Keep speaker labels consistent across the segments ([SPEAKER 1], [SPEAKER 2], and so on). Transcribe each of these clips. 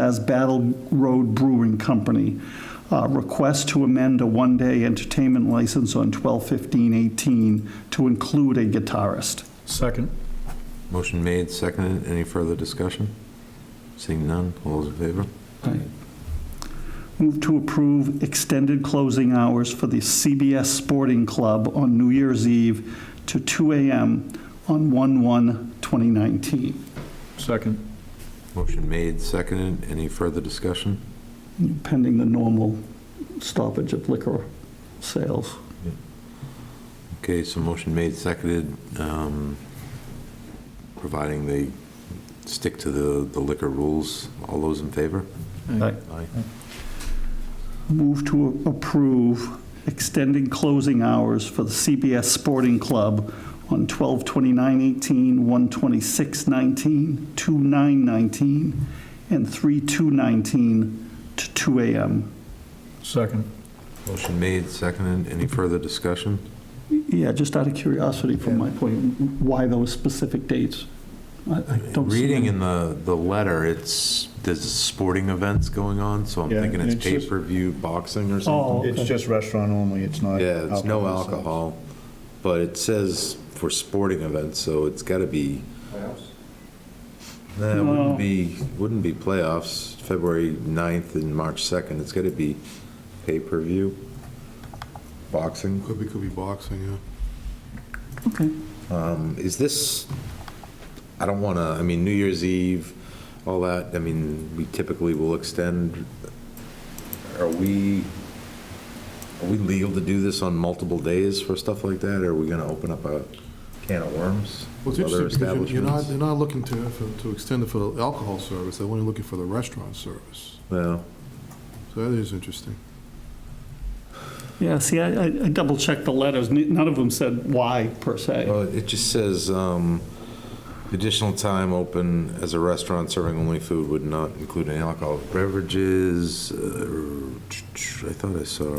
[SPEAKER 1] as Battle Road Brewing Company. Uh, Request to amend a one-day entertainment license on 12/15/18 to include a guitarist.
[SPEAKER 2] Second.
[SPEAKER 3] Motion made, seconded. Any further discussion? Seeing none, all those in favor?
[SPEAKER 1] Move to approve extended closing hours for the CBS Sporting Club on New Year's Eve to 2 AM on 1/1/2019.
[SPEAKER 2] Second.
[SPEAKER 3] Motion made, seconded. Any further discussion?
[SPEAKER 1] pending the normal stoppage of liquor sales.
[SPEAKER 3] Okay, so motion made, seconded, um, providing they stick to the the liquor rules. All those in favor? Aye.
[SPEAKER 1] Move to approve extending closing hours for the CBS Sporting Club on 12/29/18, 1/26/19, 2/9/19, and 3/2/19 to 2 a.m.
[SPEAKER 2] Second.
[SPEAKER 3] Motion made, seconded. Any further discussion?
[SPEAKER 1] Yeah, just out of curiosity from my point, why those specific dates? I- I don't see
[SPEAKER 3] Reading
[SPEAKER 1] them.
[SPEAKER 3] in the, the letter, it's, there's sporting events going on, so I'm
[SPEAKER 4] Yeah,
[SPEAKER 3] thinking it's
[SPEAKER 4] it's just-
[SPEAKER 3] pay-per-view boxing or something.
[SPEAKER 1] Oh,
[SPEAKER 4] It's
[SPEAKER 1] okay.
[SPEAKER 4] just restaurant only, it's not.
[SPEAKER 3] Yeah, it's no
[SPEAKER 4] sales.
[SPEAKER 3] alcohol, but it says for sporting events, so it's gotta be. Playoffs? Nah, it
[SPEAKER 1] No.
[SPEAKER 3] wouldn't be, wouldn't be playoffs, February 9th and March 2nd, it's gotta be pay-per-view. Boxing.
[SPEAKER 5] Could be, could be boxing, yeah.
[SPEAKER 1] Okay.
[SPEAKER 3] Um, Is this, I don't wanna, I mean, New Year's Eve, all that, I mean, we typically will extend. Are we, are we legal to do this on multiple days for stuff like that? Or are we gonna open up a can of worms?
[SPEAKER 5] Well, it's
[SPEAKER 3] with other
[SPEAKER 5] interesting because you're- you're not,
[SPEAKER 3] establishments?
[SPEAKER 5] you're not looking to, for- to extend it for the alcohol service, they're only looking for the restaurant service.
[SPEAKER 3] Well,
[SPEAKER 5] So that is interesting.
[SPEAKER 1] Yeah, see, I I double-checked the letters. N- None of them said why, per se.
[SPEAKER 3] well, Uh, it just says, um, additional time open as a restaurant serving only food would not include any alcoholic beverages. uh, I thought I saw,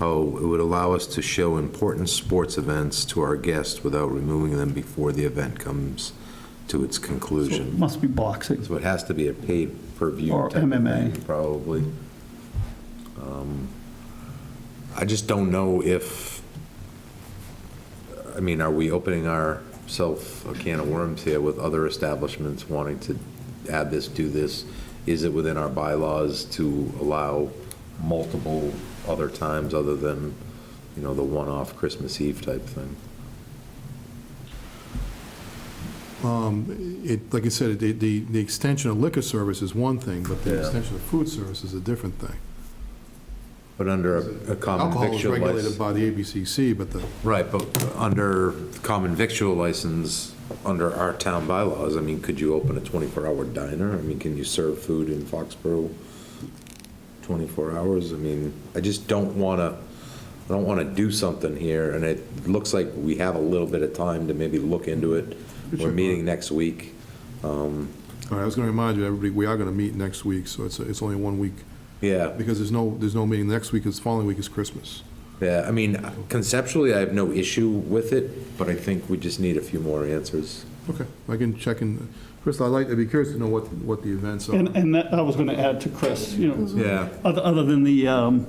[SPEAKER 3] oh, it would allow us to show important sports events to our guests without removing them before the event comes to its
[SPEAKER 1] So
[SPEAKER 3] conclusion.
[SPEAKER 1] it Must be boxing.
[SPEAKER 3] So it has to be a pay-per-view.
[SPEAKER 1] Or
[SPEAKER 3] type of
[SPEAKER 1] MMA.
[SPEAKER 3] thing, Probably. Um, I just don't know if, I mean, are we opening ourselves a can of worms here with other establishments wanting to add this, do this? Is it within our bylaws to allow multiple other times other than, you know, the one-off Christmas Eve type thing?
[SPEAKER 5] Um, It, like I said, the, the the extension of liquor service is one thing, but the
[SPEAKER 3] Yeah.
[SPEAKER 5] extension of food service is a different thing.
[SPEAKER 3] But under a a common
[SPEAKER 5] Alcohol is
[SPEAKER 3] victual license.
[SPEAKER 5] regulated by the ABCC, but the,
[SPEAKER 3] Right, but under common victual license, under our town bylaws, I mean, could you open a 24-hour diner? I mean, can you serve food in Foxborough 24 hours? I mean, I just don't want to, I don't want to do something here, and it looks like we have a little bit of time to maybe look into it. We're meeting next week.
[SPEAKER 5] all right, I was going to remind you, everybody, we are going to meet next week, so it's, it's only one week,
[SPEAKER 3] Yeah,
[SPEAKER 5] because there's no, there's no meeting next week, 'cause the following week is Christmas.
[SPEAKER 3] yeah, I mean, conceptually, I have no issue with it, but I think we just need a few more answers.
[SPEAKER 5] Okay, I can check in, Chris, I'd like, I'd be curious to know what, what the events are.
[SPEAKER 1] And, and that, I was going to add to Chris, you
[SPEAKER 5] Mm-hmm.
[SPEAKER 1] know,
[SPEAKER 3] Yeah.
[SPEAKER 1] other, other than the, um,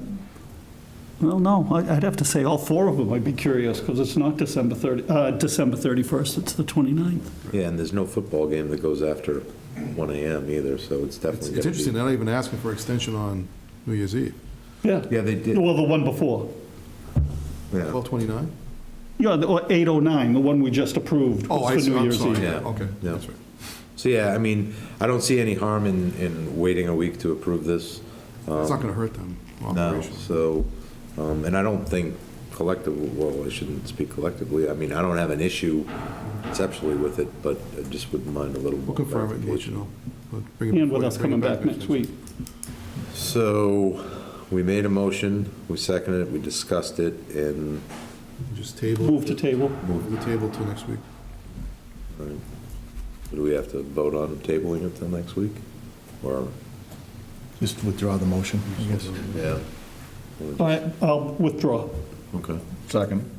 [SPEAKER 1] well, no, I- I'd have to say all four of them, I'd be curious, because it's not December 30, uh, December 31st, it's the 29th.
[SPEAKER 3] Yeah, and there's no football game that goes after 1 AM either, so it's definitely.
[SPEAKER 5] It's it's
[SPEAKER 3] gonna be-
[SPEAKER 5] interesting, they're not even asking for extension on New Year's Eve.
[SPEAKER 1] Yeah.
[SPEAKER 3] Yeah, they did.
[SPEAKER 1] Well, the one before,
[SPEAKER 3] Yeah.
[SPEAKER 5] 1229?
[SPEAKER 1] yeah, the- or 809, the one we just approved
[SPEAKER 5] Oh, I
[SPEAKER 1] was for
[SPEAKER 5] see,
[SPEAKER 1] New
[SPEAKER 5] I'm
[SPEAKER 1] Year's
[SPEAKER 5] sorry,
[SPEAKER 1] Eve.
[SPEAKER 3] Yeah.
[SPEAKER 5] okay,
[SPEAKER 3] Yeah.
[SPEAKER 5] that's right.
[SPEAKER 3] So, yeah, I mean, I don't see any harm in, in waiting a week to approve this.
[SPEAKER 5] It's not going to hurt them
[SPEAKER 3] No,
[SPEAKER 5] operationally.
[SPEAKER 3] so, um, and I don't think collectively, well, I shouldn't speak collectively. I mean, I don't have an issue conceptually with it, but I just wouldn't mind a little.
[SPEAKER 5] We'll confirm it and let you know. We'll bring it
[SPEAKER 1] And with
[SPEAKER 5] before-
[SPEAKER 1] us
[SPEAKER 5] bring it
[SPEAKER 1] coming back next week.
[SPEAKER 3] So, we made a motion, we seconded it, we discussed it, and
[SPEAKER 5] Just table.
[SPEAKER 1] Move to table.
[SPEAKER 5] Move the table till next week.
[SPEAKER 3] do we have to vote on tabling it till next week? Or?
[SPEAKER 4] Just withdraw the motion, I guess.
[SPEAKER 3] Yeah.
[SPEAKER 1] All right, I'll withdraw.
[SPEAKER 3] Okay.
[SPEAKER 4] Second.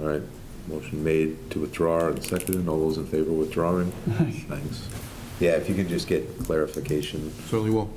[SPEAKER 3] All right, motion made to withdraw and seconded, all those in favor of withdrawing? Thanks.
[SPEAKER 6] Yeah, if you can just get clarification.
[SPEAKER 3] Certainly will.